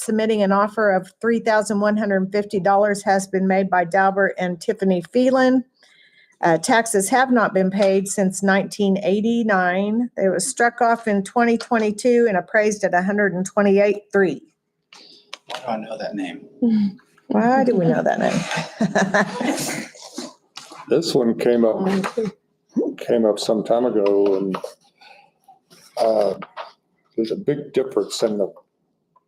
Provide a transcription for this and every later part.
submitting an offer of $3,150 has been made by Dalbert and Tiffany Phelan. Uh, Taxes have not been paid since 1989. They were struck off in 2022 and appraised at 128.3. Why do I know that name? Why do we know that name? This one came up, came up some time ago and uh, there's a big difference in the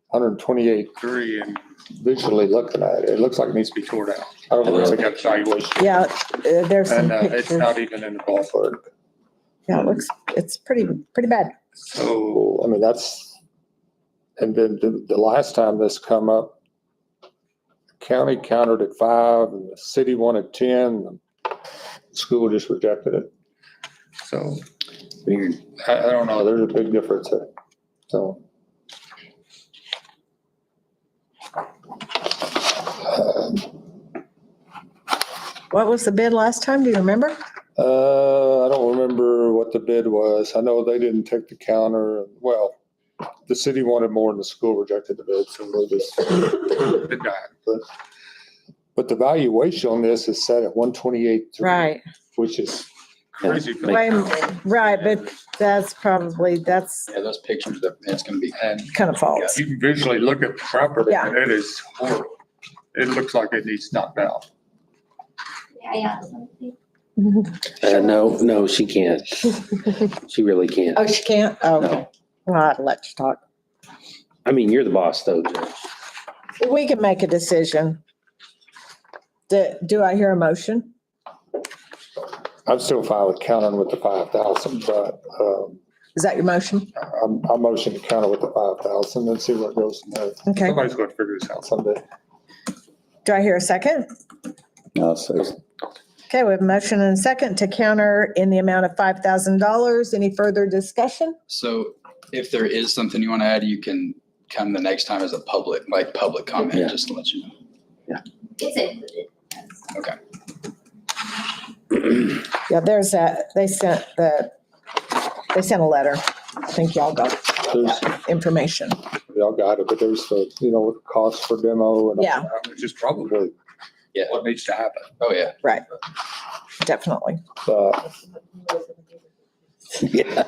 128 Three and visually looking at it. It looks like it needs to be be, tore down. I don't know, It's it's like a like valuation. Yeah, uh, there's some And uh, it's pictures. not even in the a ballpark. ballpark. Yeah, it looks, it's pretty, pretty bad. So Well, I mean, that's, and then the, the last time this come up, county countered at five and the city wanted 10. and the School just rejected it. so I, I don't Oh, know. there's a big difference there. So. What was the bid last time? Do you remember? Uh, I don't remember what the bid was. I know they didn't take the counter. Well, the city wanted more and the school rejected the bid, so we'll just. It died. But the valuation on this is set at one twenty-eight. Which is, Crazy. for- Way- Right, but that's probably, that's Yeah, those pictures, that- that's gonna be. And kind of false. you can visually look at the property Yeah. and it is horrible. It looks like it needs knocked down. Yeah, yeah. Uh, no, no, she can't. She really can't. Oh, she can't? Oh, okay. No. Well, I'd let you talk. I mean, you're the boss though, Judge. We can make a decision. Do, do I hear a motion? I'm still fine with counting with the five thousand, but, um, Is that your motion? I'm, I motion to counter with the five thousand and see what goes from there Okay. Somebody's going to figure this out. someday. Do I hear a second? Okay, we have a motion and a second to counter in the amount of five thousand dollars. Any further discussion? So if there is something you want to add, you can come the next time as a public, like public Yeah. comment, just to let you know. It's included. Yeah, there's that, they sent the, they sent a letter. I think y'all got There's, information. y'all got it, but there's the, you know, what cost for demo and. Yeah. Which is probably Yeah. what needs to happen. Oh, yeah. Definitely. Uh, Yeah.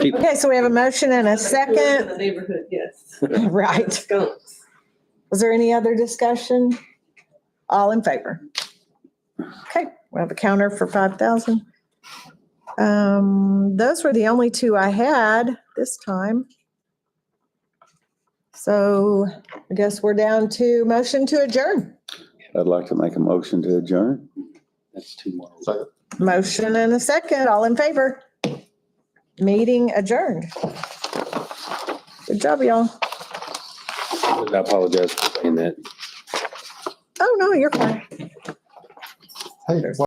People- Okay, so we have a motion and a In the second. neighborhood, yes. Right. Skunks. Was there any other discussion? All in favor? Okay, we have a counter for five thousand. Um, those were the only two I had this time. So I guess we're down to motion to adjourn. I'd like to make a motion to adjourn. That's two more. Motion and a second, all in favor? Meeting adjourned. Good job, y'all. I apologize for saying that. Oh, no, you're fine. Hey,